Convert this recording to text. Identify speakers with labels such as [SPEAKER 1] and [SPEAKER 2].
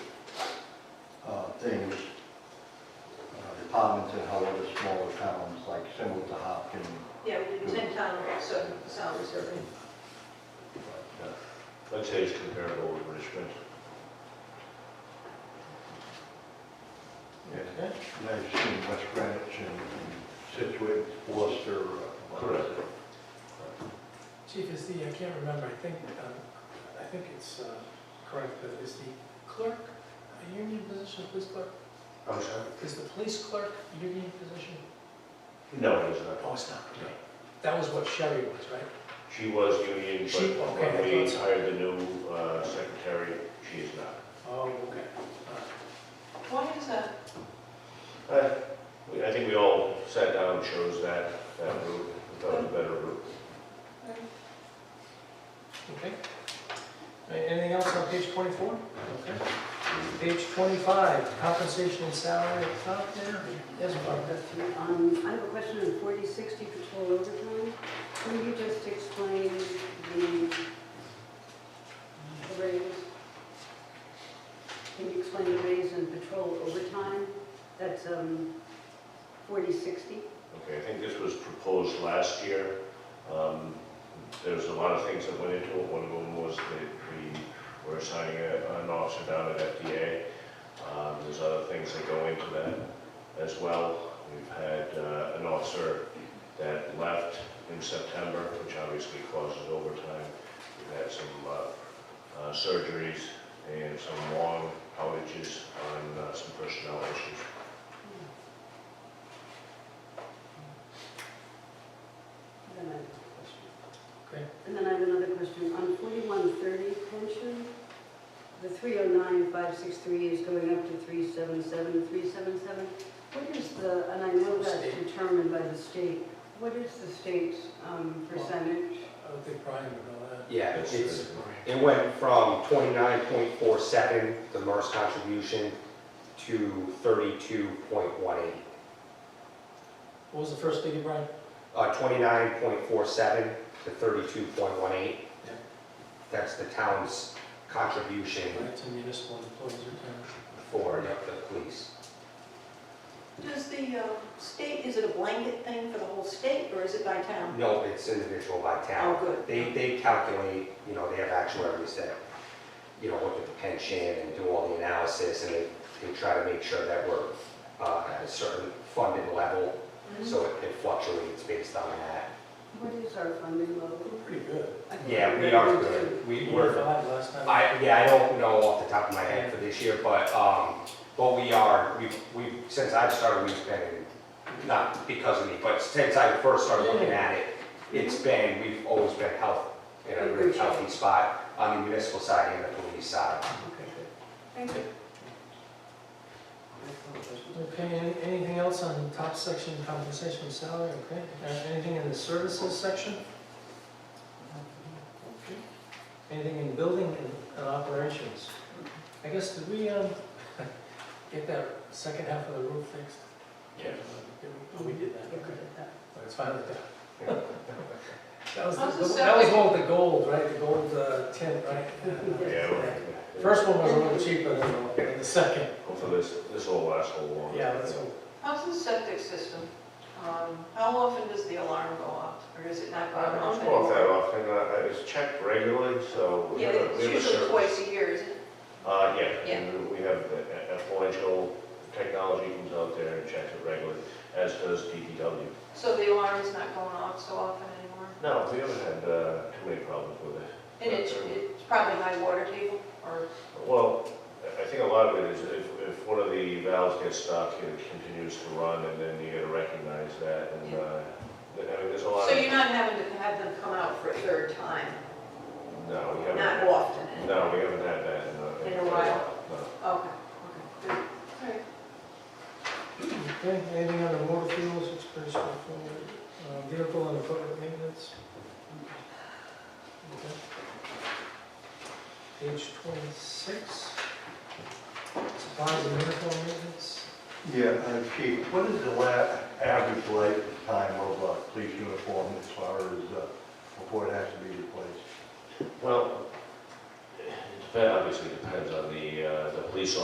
[SPEAKER 1] uh, towns that held the smaller towns, like similar to Hopkins.
[SPEAKER 2] Yeah, we did ten town, so sound survey.
[SPEAKER 1] but, uh,
[SPEAKER 3] I'd say it's comparable with Richmond.
[SPEAKER 1] yeah. And I've seen West Greenwich and Situate, Worcester. uh,
[SPEAKER 3] Correct.
[SPEAKER 4] Chief, is the, I can't remember, I think, um, I think it's uh, correct, but is the clerk a union position, police clerk?
[SPEAKER 3] I'm sorry?
[SPEAKER 4] Is the police clerk a union position?
[SPEAKER 3] No, it's not.
[SPEAKER 4] Oh, it's not, okay. That was what Sherry was, right?
[SPEAKER 3] She was union,
[SPEAKER 4] She-
[SPEAKER 3] but
[SPEAKER 4] okay,
[SPEAKER 3] when
[SPEAKER 4] I
[SPEAKER 3] we
[SPEAKER 4] thought so.
[SPEAKER 3] hired the new uh, secretary, she is not.
[SPEAKER 4] Oh, okay. All right.
[SPEAKER 2] Why is that?
[SPEAKER 3] Uh, we- I think we all sat down and chose that, that route, we thought it was a better route.
[SPEAKER 4] Okay. A- Uh, Anything else on page 24? Okay. Page 25, compensation and salary at the top there. Yes, Barbara?
[SPEAKER 5] Um, I have a question on forty sixty patrol overtime. Can you just explain the the raise? Can you explain the raise in patrol overtime? That's, um, forty sixty?
[SPEAKER 3] Okay, I think this was proposed last year. Um, There's a lot of things that went into it. One of them was that we were assigning a- an officer down at FDA. Um, There's other things that go into that as well. We've had uh, an officer that left in September, which obviously causes overtime. We've had some uh, uh, surgeries and some long outages on uh, some personnel issues.
[SPEAKER 5] Then I have a question.
[SPEAKER 4] Okay.
[SPEAKER 5] And then I have another question. On forty-one thirty pension, the three oh nine five six three is going up to three seven seven three seven seven. What is the, and I know that's
[SPEAKER 4] State.
[SPEAKER 5] determined by the state, what is the state's um, percentage?
[SPEAKER 4] I don't think Brian would know that.
[SPEAKER 6] Yeah,
[SPEAKER 3] That's-
[SPEAKER 6] it's, it went from twenty-nine point four seven, the MERS contribution, to thirty-two point one eight.
[SPEAKER 4] What was the first figure, Brian?
[SPEAKER 6] Uh, twenty-nine point four seven to thirty-two point one eight.
[SPEAKER 4] Yeah.
[SPEAKER 6] That's the town's contribution
[SPEAKER 4] Right, to municipal employees or
[SPEAKER 6] for the police.
[SPEAKER 2] Does the uh, state, is it a blanket thing for the whole state, or is it by town?
[SPEAKER 6] No, it's individual by
[SPEAKER 2] Oh,
[SPEAKER 6] town.
[SPEAKER 2] good.
[SPEAKER 6] They, they calculate, you know, they have actuaries that, you know, look at the pension and do all the analysis, and they, they try to make sure that we're, uh, at a certain funded level,
[SPEAKER 2] Mm-hmm.
[SPEAKER 6] So it- it fluctuates based on that.
[SPEAKER 5] What is our funding level?
[SPEAKER 4] town? Pretty good.
[SPEAKER 5] I think
[SPEAKER 6] Yeah, we
[SPEAKER 5] we're
[SPEAKER 6] are
[SPEAKER 5] going to-
[SPEAKER 6] good. We
[SPEAKER 4] You
[SPEAKER 6] were,
[SPEAKER 4] five last time.
[SPEAKER 6] I, yeah, I don't know off the top of my head for this year, but, um, but we are, we've, we've, since I've started, we've been, not because of me, but since I first started looking at it, it's been, we've always been health, in a really healthy spot on the municipal side and the police side.
[SPEAKER 5] Okay, good. Thank you.
[SPEAKER 4] Okay, any- anything else on the top section, compensation and salary, okay? Uh, Anything in the services section? Okay. Anything in building and- and operations? I guess, did we um, get that second half of the roof fixed?
[SPEAKER 3] Yeah.
[SPEAKER 4] Oh, we did that, okay. Well, It's finally done. That was,
[SPEAKER 2] How's the
[SPEAKER 4] the- that was
[SPEAKER 2] second?
[SPEAKER 4] one with the gold, right, the gold uh, tint, right?
[SPEAKER 3] Yeah, we're-
[SPEAKER 4] First one was a little cheaper than the- than the second,
[SPEAKER 3] Hopefully this, this will last a long.
[SPEAKER 4] yeah, that's all.
[SPEAKER 2] How's the septic system? Um, How often does the alarm go off, or is it not
[SPEAKER 3] I
[SPEAKER 2] going off
[SPEAKER 3] don't know if
[SPEAKER 2] anymore?
[SPEAKER 3] that often, uh, it's checked regularly, so we
[SPEAKER 2] Yeah,
[SPEAKER 3] have a, we
[SPEAKER 2] it's
[SPEAKER 3] have a
[SPEAKER 2] usually
[SPEAKER 3] service.
[SPEAKER 2] twice a year, isn't it?
[SPEAKER 3] Uh, yeah,
[SPEAKER 2] Yeah.
[SPEAKER 3] and we have a- a- influential technology comes out there and checks it regularly, as does DPW.
[SPEAKER 2] So the alarm is not going off so often anymore?
[SPEAKER 3] No, we haven't had, uh, too many problems with it.
[SPEAKER 2] And it's, it's probably high water table, or,
[SPEAKER 3] Well, I I think a lot of it is if, if one of the valves gets stuck, it continues to run, and then you gotta recognize that, and,
[SPEAKER 2] Yeah.
[SPEAKER 3] uh, I mean, there's a lot
[SPEAKER 2] so
[SPEAKER 3] of.
[SPEAKER 2] you're not having to have them come out for a third time,
[SPEAKER 3] No, we
[SPEAKER 2] not
[SPEAKER 3] haven't,
[SPEAKER 2] often? anyway.
[SPEAKER 3] no, we haven't had that in a.
[SPEAKER 2] In a while.
[SPEAKER 3] No.
[SPEAKER 2] Okay, okay, good. All right.
[SPEAKER 4] Okay, anything on the motor fuels, it's pretty straightforward. Uh, Vehicle and equipment maintenance. Okay. Page 26. Supplies and uniform maintenance.
[SPEAKER 1] Yeah, uh, Chief, what is the la, average lifetime of a police uniform as far as, uh, before it has to be replaced?
[SPEAKER 3] Well, it depends, obviously depends on the, uh, the police